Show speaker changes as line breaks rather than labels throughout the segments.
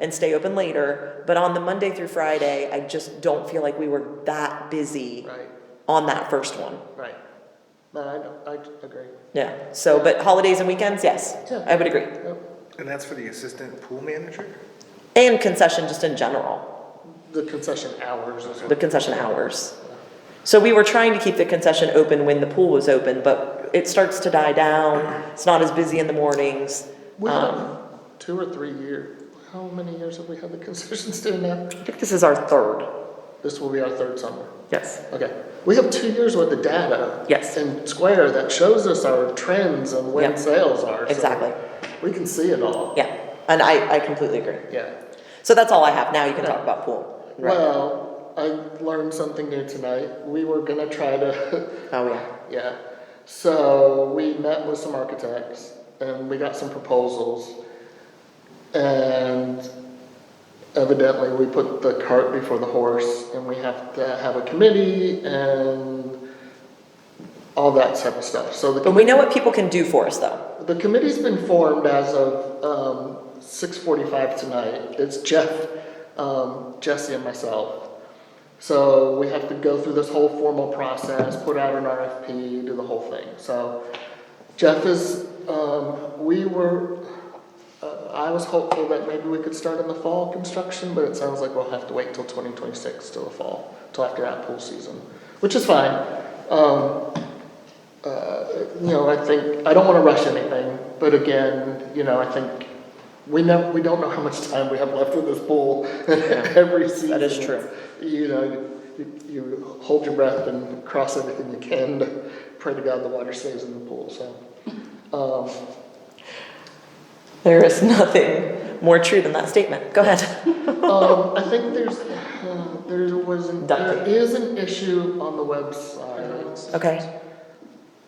and stay open later, but on the Monday through Friday, I just don't feel like we were that busy
right,
on that first one.
right. No, I, don't- I agree.
Yeah, so, but holidays and weekends, yes,
Sure.
I would agree.
Yep.
And that's for the assistant pool manager?
And concession just in general,
The concession hours is
the concession hours. So we were trying to keep the concession open when the pool was open, but it starts to die down, it's not as busy in the mornings.
We
Um,
had two or three year, how many years have we had the concession stand now?
I think this is our third,
This will be our third summer.
yes.
Okay, we have two years worth of data.
Yes.
In Square that shows us our trends and when
Yeah.
sales are. so
Exactly.
We can see it all.
Yeah, and I, I completely agree.
Yeah.
So that's all I have, now you can talk about pool. Right.
Well, I learned something new tonight. We were gonna try to
Oh, yeah,
Yeah. So we met with some architects and we got some proposals. And evidently, we put the cart before the horse and we have to have a committee and all that type of stuff. So the,
but we know what people can do for us, though.
the committee's been formed as of um, 6:45 tonight. It's Jeff, um, Jesse, and myself. So we have to go through this whole formal process, put out an RFP, do the whole thing. So Jeff is, um, we were, uh, I was hopeful that maybe we could start in the fall construction, but it sounds like we'll have to wait till 2026 till the fall, till after that pool season, which is fine. Um, uh, you know, I think, I don't want to rush anything, but again, you know, I think we never, we don't know how much time we have left with this pool every season.
That is true.
You know, you, you hold your breath and cross everything you can to pray to God the water stays in the pool, so. Um,
There is nothing more true than that statement, go ahead.
Um, I think there's, uh, there was, an- there
Ducting.
is an issue on the website
Okay,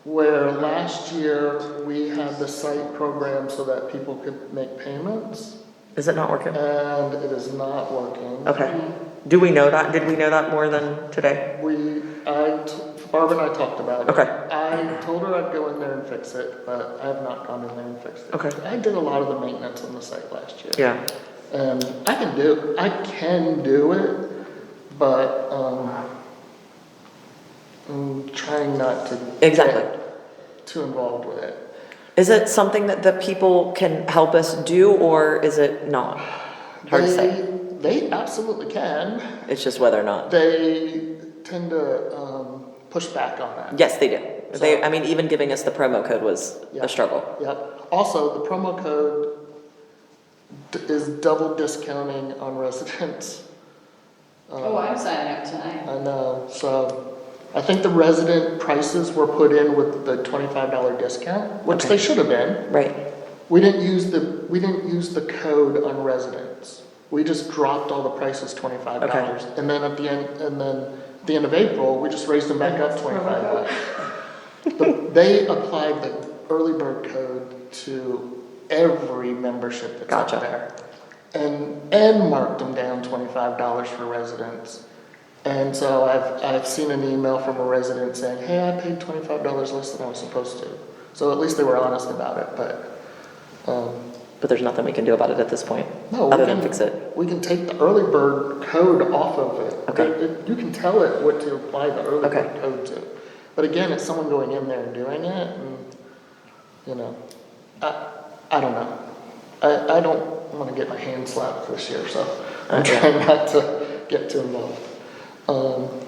where last year we had the site program so that people could make payments
is it not working?
and it is not working.
Okay, do we know that, did we know that more than today?
We, I, t- Barb and I talked about it.
Okay.
I told her I'd go in there and fix it, but I have not gone in there and fixed it.
Okay.
I did a lot of the maintenance on the site last year.
Yeah,
Um, I can do, I can do it, but, um, I'm trying not to. get
Exactly.
Too involved with it.
is it something that the people can help us do, or is it not? Hard to say,
They they absolutely can.
it's just whether or not,
They tend to, um, push back on that.
yes, they do. They, I mean, even giving us the promo code was
Yeah.
a struggle.
Yep. Also, the promo code d- is double discounting on residents.
Oh, I'm signing up tonight.
I know, so I think the resident prices were put in with the twenty-five dollar discount, which they should have been.
Right,
We didn't use the, we didn't use the code on residents. We just dropped all the prices twenty-five dollars. And then at the end, and then at the end of April, we just raised them back up twenty-five dollars. But They applied the early bird code to every membership that's out
Gotcha.
there. And, and marked them down twenty-five dollars for residents. And so I've, I've seen an email from a resident saying, hey, I paid twenty-five dollars less than I was supposed to. So at least they were honest about it, but, um,
but there's nothing we can do about it at this point,
no, we
other than
can,
fix it.
we can take the early bird code off of it.
Okay.
It- it- You can tell it what to apply the early
Okay.
bird code to. But again, it's someone going in there and doing it and, you know, I, I don't know. I, I don't wanna get my hand slapped this year, so I'm
Okay.
trying not to get too involved. Um,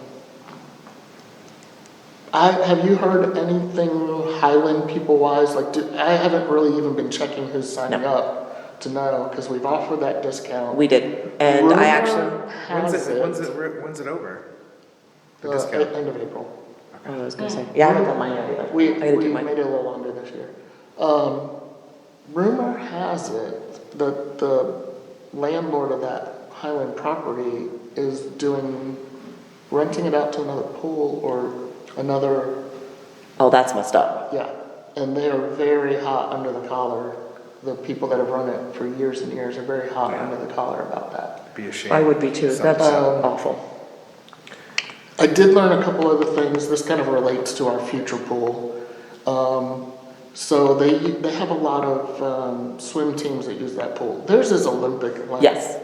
I, have you heard anything Highland people wise? Like, do, I haven't really even been checking who's signing
No.
up to know, cause we've offered that discount.
We did, and I actually,
Rumor
When's
has
it, when's
it,
it, re- when's it over? The
the
discount?
end of April.
Oh, I was gonna say, yeah, I haven't done mine yet either.
We,
I gotta
we
do
made
mine.
it a little longer this year. Um, rumor has it that the landlord of that Highland property is doing, renting it out to another pool or another,
Oh, that's messed up.
yeah. And they are very hot under the collar. The people that have run it for years and years are very hot under the collar about that.
Be a shame.
I would be too,
Some-
that's
Um,
awful.
I did learn a couple other things, this kind of relates to our future pool. Um, So they, they have a lot of um, swim teams that use that pool. Theirs is Olympic. like,
Yes.